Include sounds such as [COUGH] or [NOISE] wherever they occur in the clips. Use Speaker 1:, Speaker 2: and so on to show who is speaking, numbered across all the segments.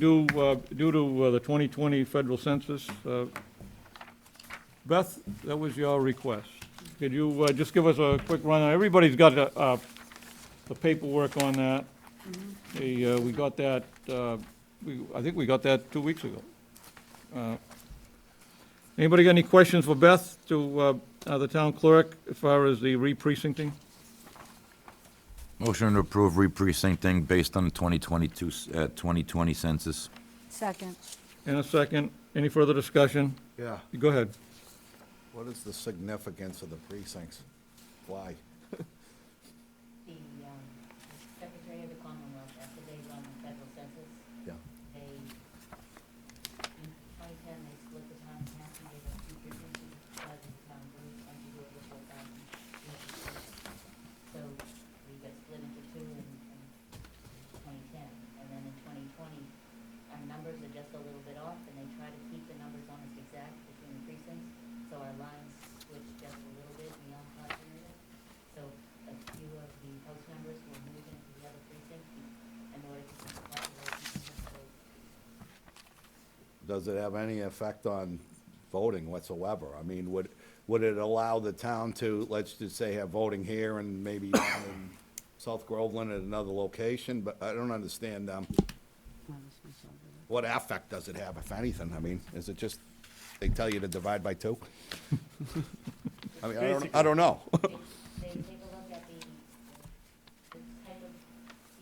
Speaker 1: due, uh, due to uh, the 2020 federal census. uh, Beth, that was your request. Could you uh, just give us a quick run? Everybody's got the, uh, the paperwork on that. The, uh, we got that, uh, we- I think we got that two weeks ago. Uh, Anybody got any questions for Beth to uh, uh, the town clerk as far as the re-precincting?
Speaker 2: Motion to approve re-precincting based on the 2022, uh, 2020 census.
Speaker 3: Second.
Speaker 1: In a second. Any further discussion?
Speaker 4: Yeah,
Speaker 1: Go ahead.
Speaker 4: what is the significance of the precincts? Why?
Speaker 5: The um, Secretary of the Commonwealth, after they run the federal census,
Speaker 4: Yeah,
Speaker 5: they, in 2010, they split the town in half and gave us two precincts, because the town grew under the over 4,000. So we got split into two in in 2010. And then in 2020, our numbers are just a little bit off, and they try to keep the numbers almost exact between the precincts. So our lines switched just a little bit beyond continuity. So a few of the house members will move into the other precinct in order to keep the population control.
Speaker 4: does it have any effect on voting whatsoever? I mean, would, would it allow the town to, let's just say, have voting here and maybe down in South Groveland at another location? But I don't understand, um, what effect does it have, if anything? I mean, is it just, they tell you to divide by two? [LAUGHS] I mean, I don't, I don't know.
Speaker 5: They they take a look at the, the type of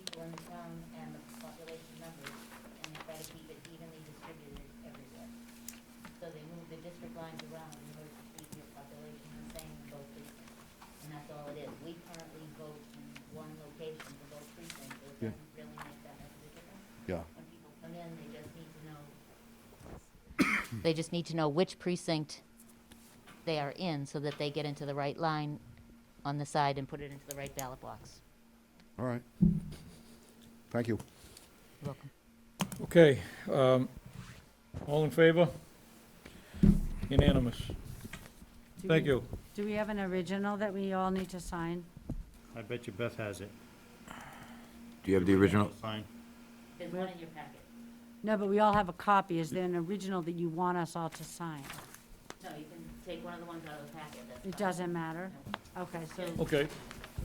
Speaker 5: people in the town and the population numbers, and they try to keep it evenly distributed everywhere. So they move the district lines around in order to keep your population the same in both precincts. And that's all it is. We currently vote in one location for both precincts, so it doesn't really make that much of a difference.
Speaker 4: Yeah.
Speaker 5: When people come in, they just need to know. They just need to know which precinct they are in so that they get into the right line on the side and put it into the right ballot box.
Speaker 4: All right. Thank you.
Speaker 5: You're welcome.
Speaker 1: Okay, um, all in favor? Unanimous. Thank you.
Speaker 3: Do we have an original that we all need to sign?
Speaker 6: I bet you Beth has it.
Speaker 2: Do you have the original?
Speaker 6: Sign.
Speaker 5: There's one in your packet.
Speaker 3: No, but we all have a copy. Is there an original that you want us all to sign?
Speaker 5: No, you can take one of the ones out of the packet. That's
Speaker 3: It
Speaker 5: fine.
Speaker 3: doesn't matter? Okay, so,
Speaker 1: Okay,
Speaker 5: It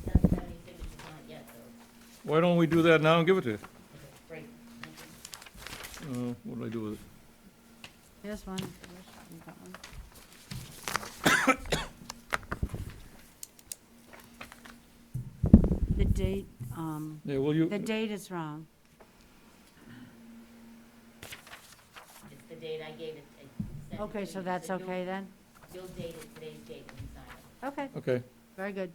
Speaker 5: doesn't have any signatures on it yet, so,
Speaker 1: why don't we do that now and give it to you?
Speaker 5: great. Thank you.
Speaker 1: Uh, what did I do with it?
Speaker 3: here's one. if you wish. You got one? The date, um,
Speaker 1: Yeah, will
Speaker 3: the
Speaker 1: you,
Speaker 3: date is wrong.
Speaker 5: It's the date I gave it. I sent it
Speaker 3: Okay,
Speaker 5: to
Speaker 3: so
Speaker 5: you,
Speaker 3: that's
Speaker 5: you'll-
Speaker 3: okay then?
Speaker 5: You'll date it today's date when you sign it,
Speaker 3: Okay,
Speaker 1: okay,
Speaker 3: very good.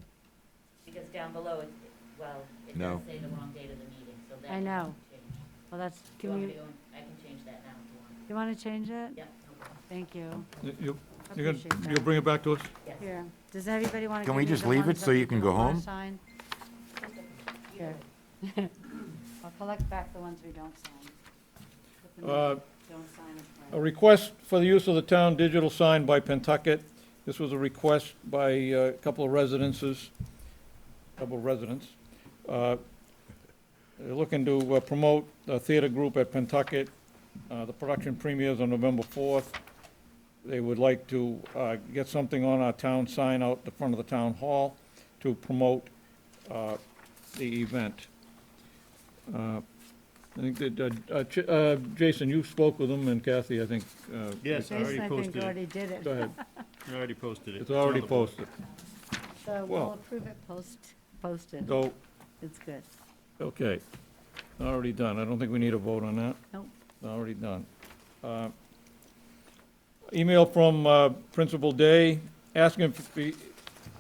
Speaker 5: because down below, it, it- well, it
Speaker 2: No.
Speaker 5: does say the wrong date of the meeting, so that.
Speaker 3: I know.
Speaker 5: can
Speaker 3: Well, that's,
Speaker 5: change. You
Speaker 3: can
Speaker 5: want me
Speaker 3: you,
Speaker 5: to go and- I can change that now if you want.
Speaker 3: you want to change it?
Speaker 5: Yep, no problem.
Speaker 3: Thank you.
Speaker 1: You- you,
Speaker 3: I
Speaker 1: you're
Speaker 3: Appreciate
Speaker 1: gonna,
Speaker 3: that.
Speaker 1: you'll bring it back to us?
Speaker 5: Yes.
Speaker 3: Here, does everybody want to?
Speaker 2: Can we just leave it so you can go home?
Speaker 3: Here. [LAUGHS] I'll collect back the ones we don't sign. Put them in.
Speaker 1: Uh,
Speaker 3: Don't sign it.
Speaker 1: A request for the use of the town digital sign by Pentucket. This was a request by uh, a couple of residences, couple of residents. Uh, They're looking to uh, promote a theater group at Pentucket. Uh, The production premieres on November 4th. They would like to uh, get something on our town sign out the front of the town hall to promote uh, the event. Uh, I think that, uh, uh, Ch- uh, Jason, you spoke with them, and Kathy, I think. uh,
Speaker 6: Yes, I
Speaker 3: Jason,
Speaker 6: already
Speaker 3: I think,
Speaker 6: posted it.
Speaker 3: already did
Speaker 1: Go
Speaker 3: it,
Speaker 1: ahead.
Speaker 6: I already posted it.
Speaker 1: It's already
Speaker 6: on the board.
Speaker 1: posted.
Speaker 3: so
Speaker 1: Well-
Speaker 3: we'll approve it post, posted.
Speaker 1: So,
Speaker 3: It's good.
Speaker 1: okay, already done. I don't think we need a vote on that.
Speaker 3: Nope.
Speaker 1: Already done. Uh, Email from uh, Principal Day, asking if he-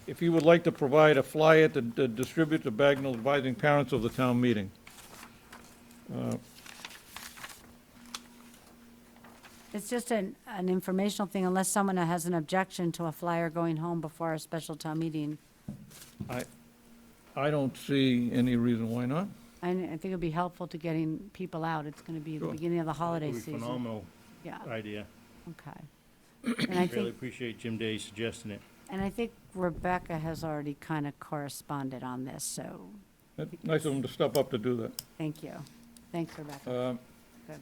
Speaker 1: if he would like to provide a flyer to to distribute to Bagnell advising parents of the town meeting.
Speaker 3: It's just an, an informational thing, unless someone has an objection to a flyer going home before our special town meeting.
Speaker 1: I, I don't see any reason why not.
Speaker 3: I, I think it'd be helpful to getting people out. It's going to be the
Speaker 1: Sure.
Speaker 3: beginning of the holiday
Speaker 6: It was a
Speaker 3: season.
Speaker 6: Phenomenal
Speaker 3: Yeah,
Speaker 6: idea.
Speaker 3: okay. And I
Speaker 6: Really
Speaker 3: think
Speaker 6: appreciate Jim Day suggesting it.
Speaker 3: And I think Rebecca has already kind of corresponded on this, so
Speaker 1: That's Nice of him to step up to do
Speaker 3: thank you. Thanks,
Speaker 1: that.
Speaker 3: Rebecca.
Speaker 1: Uh,
Speaker 3: Good.